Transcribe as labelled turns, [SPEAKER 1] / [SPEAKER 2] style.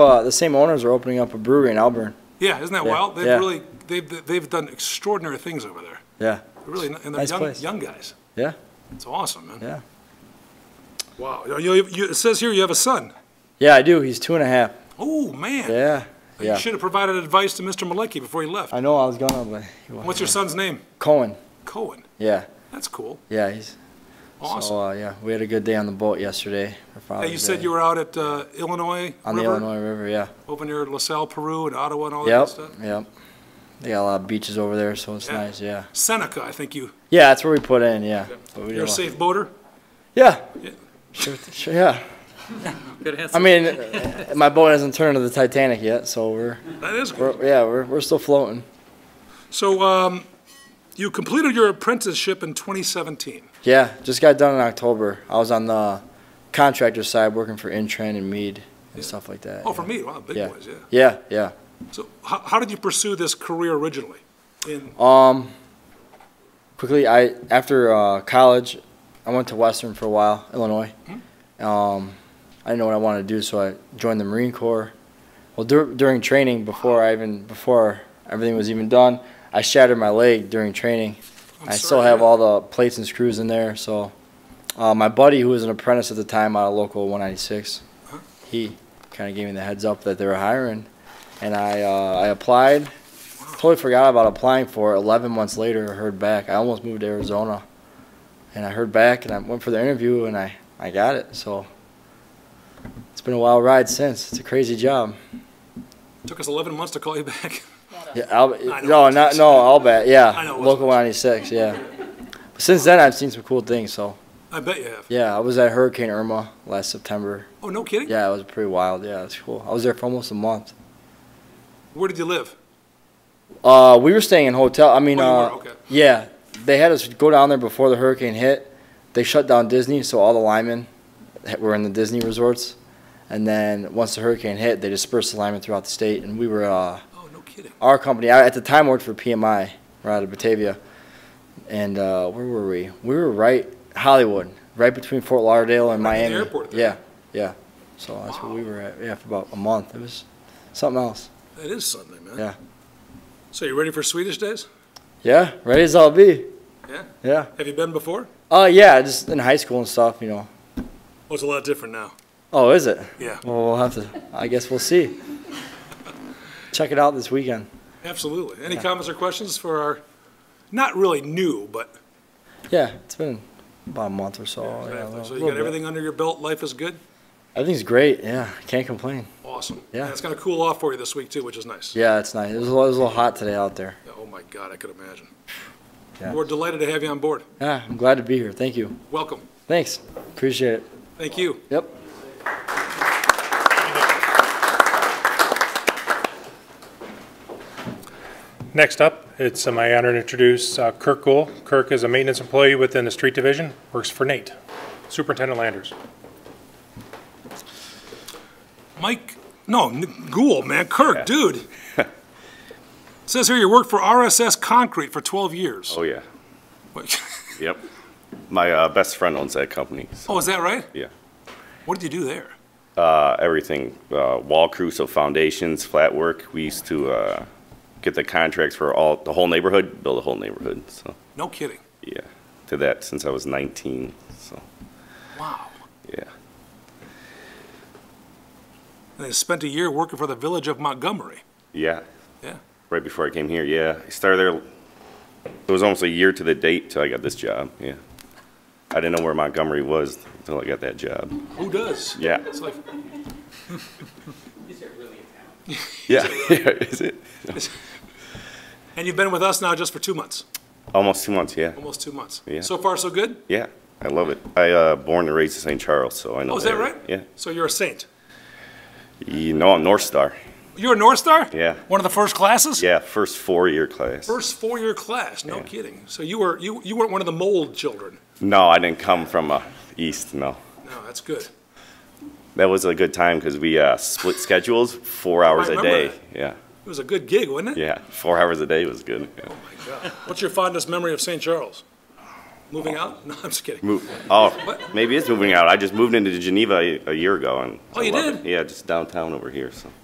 [SPEAKER 1] Uh, the same owners are opening up a brewery in Auburn.
[SPEAKER 2] Yeah, isn't that
[SPEAKER 1] Yeah,
[SPEAKER 2] wild? They've
[SPEAKER 1] yeah.
[SPEAKER 2] really, they've, they've done extraordinary things over there.
[SPEAKER 1] Yeah,
[SPEAKER 2] Really, and they're
[SPEAKER 1] Nice
[SPEAKER 2] young,
[SPEAKER 1] place.
[SPEAKER 2] young guys.
[SPEAKER 1] yeah,
[SPEAKER 2] It's awesome, man.
[SPEAKER 1] yeah.
[SPEAKER 2] Wow. You- You, you, it says here you have a son.
[SPEAKER 1] Yeah, I do. He's two and a half.
[SPEAKER 2] Oh, man.
[SPEAKER 1] Yeah,
[SPEAKER 2] You
[SPEAKER 1] yeah.
[SPEAKER 2] should have provided advice to Mr. Malecki before he left.
[SPEAKER 1] I know I was gonna, but he wasn't.
[SPEAKER 2] What's your son's name?
[SPEAKER 1] Cohen?
[SPEAKER 2] Cohen.
[SPEAKER 1] Yeah,
[SPEAKER 2] That's cool.
[SPEAKER 1] yeah. He's
[SPEAKER 2] Awesome.
[SPEAKER 1] So uh, yeah, we had a good day on the boat yesterday. for
[SPEAKER 2] Hey,
[SPEAKER 1] Father's
[SPEAKER 2] you said
[SPEAKER 1] Day.
[SPEAKER 2] you were out at uh, Illinois
[SPEAKER 1] on the
[SPEAKER 2] River, Oh,
[SPEAKER 1] Illinois River. Yeah.
[SPEAKER 2] over near LaSalle, Peru, and Ottawa and all that
[SPEAKER 1] Yep.
[SPEAKER 2] stuff?
[SPEAKER 1] Yep. They got a lot of beaches over there, so it's
[SPEAKER 2] Yeah.
[SPEAKER 1] nice. Yeah.
[SPEAKER 2] Seneca, I think you,
[SPEAKER 1] Yeah, that's where we put in. Yeah. But we did
[SPEAKER 2] you're a
[SPEAKER 1] lot-
[SPEAKER 2] safe boater?
[SPEAKER 1] Yeah.
[SPEAKER 2] Yeah.
[SPEAKER 1] Sure, sure, yeah. I mean, uh, my boat hasn't turned to the Titanic yet, so we're,
[SPEAKER 2] That is good.
[SPEAKER 1] we're yeah, we're, we're still floating.
[SPEAKER 2] So um, you completed your apprenticeship in 2017.
[SPEAKER 1] Yeah, just got done in October. I was on the contractor side working for Intran and Mead and stuff like that.
[SPEAKER 2] Oh, for me, wow, big
[SPEAKER 1] Yeah.
[SPEAKER 2] boys, yeah.
[SPEAKER 1] Yeah, yeah.
[SPEAKER 2] So how, how did you pursue this career originally? In,
[SPEAKER 1] Um, quickly, I after uh, college, I went to Western for a while, Illinois. Um, I didn't know what I wanted to do, so I joined the Marine Corps. Well, dur- during training, before I even before everything was even done, I shattered my leg during training.
[SPEAKER 2] I'm
[SPEAKER 1] I
[SPEAKER 2] sorry,
[SPEAKER 1] still have
[SPEAKER 2] yeah.
[SPEAKER 1] all the plates and screws in there. So, uh, my buddy, who was an apprentice at the time out of local 196, he kind of gave me the heads up that they were hiring, and I uh, I applied. Totally forgot about applying for it. 11 months later, I heard back. I almost moved to Arizona, and I heard back, and I went for the interview, and I I got it. So. It's been a wild ride since. It's a crazy job.
[SPEAKER 2] Took us 11 months to call you back.
[SPEAKER 1] Yeah, Al-
[SPEAKER 2] know
[SPEAKER 1] no,
[SPEAKER 2] what
[SPEAKER 1] not
[SPEAKER 2] you
[SPEAKER 1] no, I'll bet. Yeah,
[SPEAKER 2] I know what
[SPEAKER 1] local
[SPEAKER 2] you-
[SPEAKER 1] 196. Yeah. But since then, I've seen some cool things. So
[SPEAKER 2] I bet you have.
[SPEAKER 1] yeah, I was at Hurricane Irma last September.
[SPEAKER 2] Oh, no kidding?
[SPEAKER 1] Yeah, it was pretty wild. Yeah, it's cool. I was there for almost a month.
[SPEAKER 2] Where did you live?
[SPEAKER 1] Uh, we were staying in hotel. I mean,
[SPEAKER 2] Oh, you
[SPEAKER 1] uh,
[SPEAKER 2] were, okay.
[SPEAKER 1] yeah, they had us go down there before the hurricane hit. They shut down Disney, so all the linemen that were in the Disney resorts. And then once the hurricane hit, they dispersed the linemen throughout the state, and we were uh,
[SPEAKER 2] Oh, no kidding.
[SPEAKER 1] our company. I, at the time, worked for PMI, right out of Batavia, and uh, where were we? We were right Hollywood, right between Fort Lauderdale and
[SPEAKER 2] Right near the
[SPEAKER 1] Miami.
[SPEAKER 2] airport there.
[SPEAKER 1] Yeah, yeah. So that's where we were at. Yeah, for about a month. It was something else.
[SPEAKER 2] That is something, man.
[SPEAKER 1] Yeah.
[SPEAKER 2] So you ready for Swedish days?
[SPEAKER 1] Yeah, ready as I'll be.
[SPEAKER 2] Yeah?
[SPEAKER 1] Yeah.
[SPEAKER 2] Have you been before?
[SPEAKER 1] Uh, yeah, just in high school and stuff, you know.
[SPEAKER 2] Well, it's a lot different now.
[SPEAKER 1] Oh, is it?
[SPEAKER 2] Yeah,
[SPEAKER 1] Well, we'll have to. I guess we'll see. Check it out this weekend.
[SPEAKER 2] absolutely. Any comments or questions for our, not really new, but,
[SPEAKER 1] Yeah, it's been about a month or so. Oh, Yeah, a little-
[SPEAKER 2] so you
[SPEAKER 1] little
[SPEAKER 2] got
[SPEAKER 1] bit.
[SPEAKER 2] everything under your belt, life is good?
[SPEAKER 1] Everything's great. Yeah, can't complain.
[SPEAKER 2] Awesome.
[SPEAKER 1] Yeah.
[SPEAKER 2] And it's going to cool off for you this week too, which is nice.
[SPEAKER 1] Yeah, it's nice. It was, a little, it was a little hot today out there.
[SPEAKER 2] Oh my God, I could imagine.
[SPEAKER 1] Yeah.
[SPEAKER 2] We're delighted to have you on board.
[SPEAKER 1] Yeah, Ah, I'm glad to be here. Thank you.
[SPEAKER 2] Welcome.
[SPEAKER 1] Thanks. Appreciate it.
[SPEAKER 2] Thank you.
[SPEAKER 1] Yep.
[SPEAKER 3] Next up, it's uh, my honor to introduce uh, Kirk Gould. Kirk is a maintenance employee within the street division, works for Nate, Superintendent Landers.
[SPEAKER 2] Mike, no, N- Gould, man, Kirk, dude. Says here you worked for RSS Concrete for 12 years.
[SPEAKER 4] Oh, yeah.
[SPEAKER 2] Wait,
[SPEAKER 4] Yep. My uh, best friend owns that company. so,
[SPEAKER 2] Oh, is that right?
[SPEAKER 4] Yeah.
[SPEAKER 2] What did you do there?
[SPEAKER 4] Uh, everything, uh, wall crew, so foundations, flat work. We used to uh, get the contracts for all the whole neighborhood, build a whole neighborhood. So
[SPEAKER 2] No kidding.
[SPEAKER 4] yeah, did that since I was 19. So
[SPEAKER 2] Wow.
[SPEAKER 4] yeah,
[SPEAKER 2] And they spent a year working for the village of Montgomery.
[SPEAKER 4] yeah.
[SPEAKER 2] Yeah.
[SPEAKER 4] Right before I came here, yeah, I started there. It was almost a year to the date till I got this job. Yeah. I didn't know where Montgomery was until I got that job.
[SPEAKER 2] Who does?
[SPEAKER 4] Yeah.
[SPEAKER 2] It's like,
[SPEAKER 4] Yeah. Is it?
[SPEAKER 2] and you've been with us now just for two months,
[SPEAKER 4] Almost two months. Yeah.
[SPEAKER 2] almost two months.
[SPEAKER 4] Yeah.
[SPEAKER 2] So far, so good?
[SPEAKER 4] Yeah, I love it. I uh, born and raised in St. Charles, so I know.
[SPEAKER 2] Oh, is that
[SPEAKER 4] area.
[SPEAKER 2] right?
[SPEAKER 4] Yeah.
[SPEAKER 2] So you're a saint.
[SPEAKER 4] You know, I'm North Star.
[SPEAKER 2] You're a North Star?
[SPEAKER 4] Yeah.
[SPEAKER 2] One of the first classes?
[SPEAKER 4] Yeah, first four-year class.
[SPEAKER 2] First four-year class, no kidding. So you were, you, you weren't one of the mold children.
[SPEAKER 4] No, I didn't come from uh, East. No,
[SPEAKER 2] No, that's good.
[SPEAKER 4] that was a good time because we uh, split schedules, four hours a
[SPEAKER 2] remember
[SPEAKER 4] day.
[SPEAKER 2] that.
[SPEAKER 4] Yeah,
[SPEAKER 2] It was a good gig, wasn't it?
[SPEAKER 4] yeah, four hours a day was good. Yeah.
[SPEAKER 2] What's your fondest memory of St. Charles? Moving out? No, I'm just kidding.
[SPEAKER 4] Move, oh,
[SPEAKER 2] What?
[SPEAKER 4] maybe it's moving out. I just moved into Geneva a, a year ago and.
[SPEAKER 2] Oh,
[SPEAKER 4] I
[SPEAKER 2] you
[SPEAKER 4] love it.
[SPEAKER 2] did?
[SPEAKER 4] Yeah, just downtown over here, so.